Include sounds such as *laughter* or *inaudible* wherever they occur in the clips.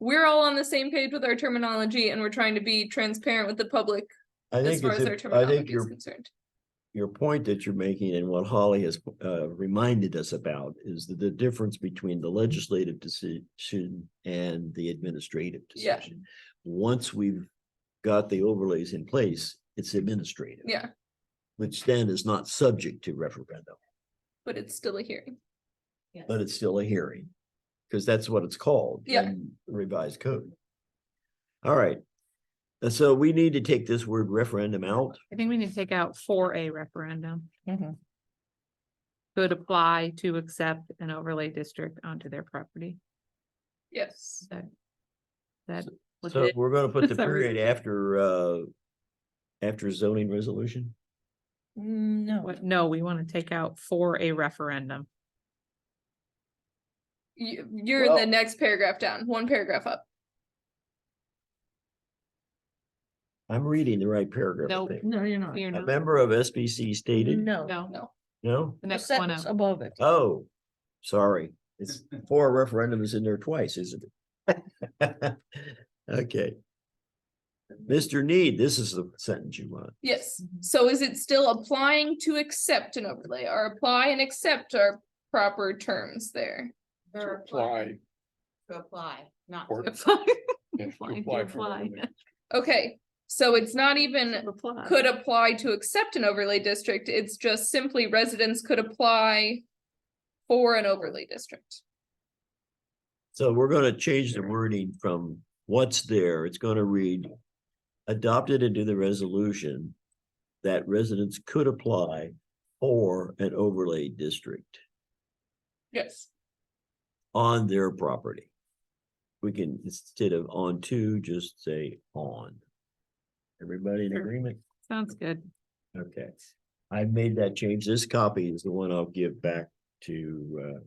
we're all on the same page with our terminology and we're trying to be transparent with the public I as think far as our it's, a- I think terminology is your, concerned. your point that you're making and what Holly has uh reminded us about is that the difference between the legislative decision and the administrative Yeah. decision. Once we've got the overlays in place, it's administrative. Yeah, Which then is not subject to referendum, but it's still a hearing. but it's still a hearing. Because that's what it's called. Yeah. in Revised code. All right. And so we need to take this word referendum out. I think we need to take out for a referendum. Mm-hmm. Could apply to accept an overlay district onto their property. Yes. That. was So it. we're gonna put the Sorry. period after, uh, after zoning resolution? No. What- No, we want to take out for a referendum. You, you're in the Well- next paragraph down, one paragraph up. I'm reading the right paragraph. I No. think. No, you're not. You're A not, member of SBC stated, No. no, no? the The next one sentence up. above it. Oh, sorry. It's four referendums in there twice, isn't it? *laughs* Okay. Mr. Need, this is the sentence you want. Yes, Mhm. so is it still applying to accept an overlay or apply and accept are proper terms there? apply. To apply, not. Or- *laughs* yeah, to Apply, apply to for apply. overlay. Okay, so it's not even Apply. could apply to accept an overlay district, it's just simply residents could apply for an overlay district. So we're gonna change the wording from what's there, it's gonna read. Adopted into the resolution that residents could apply for an overlay district Yes. on their property. We can, instead of on to, just say on. Everybody in Sure. agreement? Sounds good. Okay. I made that change. This copy is the one I'll give back to uh.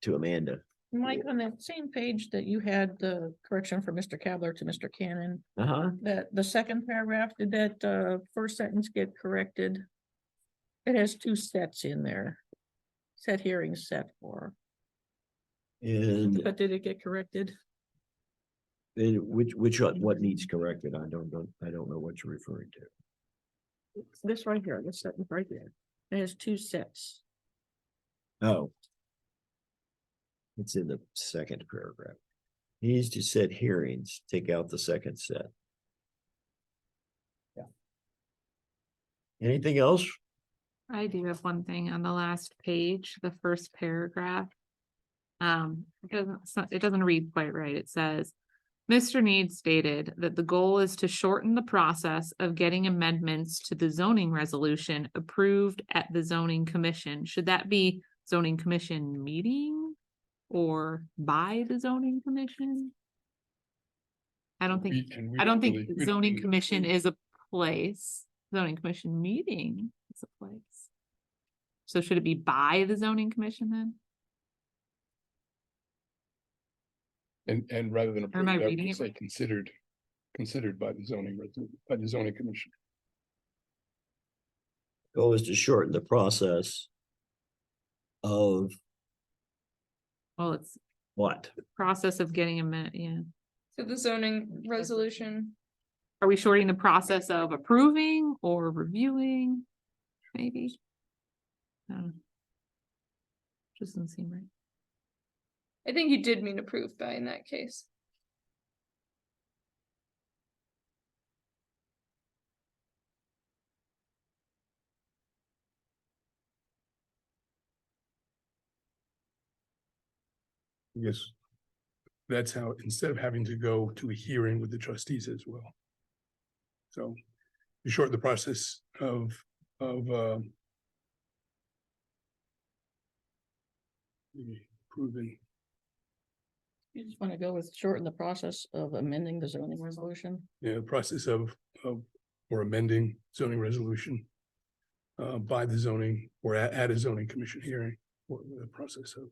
To Amanda. Mike, on that same page that you had the correction from Mr. Cavler to Mr. Cannon, Uh-huh. that the second paragraph, did that uh first sentence get corrected? It has two sets in there. Set hearing, set for, And but did it get corrected? And which, which, one- what needs corrected? I don't, know. I don't know what you're referring to. This right here, this sentence right there. It has two sets. Oh. It's in the second paragraph. Needs to set hearings, take out the second set. Yeah. Anything else? I do have one thing on the last page, the first paragraph. Um, it doesn't, it's not- it doesn't read quite right. It says. Mr. Need stated that the goal is to shorten the process of getting amendments to the zoning resolution approved at the zoning commission. Should that be zoning commission meeting? Or by the zoning commission? I don't think, We- and we I don't think really- we don't zoning really commission approve. is a place, zoning commission meeting is a place. So should it be by the zoning commission then? And, and rather than. Am I approved, would reading it just say right? Considered, considered by the zoning, res- by the zoning commission. Goal is to shorten the process. Of Well, it's what? process of getting a minute, yeah. To the zoning resolution, Are we shorting the process of approving or reviewing? Maybe? I don't know. Just doesn't seem right. I think you did mean approved by in that case. Yes. That's how, instead of having to go to a hearing with the trustees as well. So you shorten the process of, of, um. Proving, You just want to go with shorten the process of amending the zoning resolution? you know, the process of, of, or amending zoning resolution. Uh, by the zoning or at, at a zoning commission hearing, or the process of.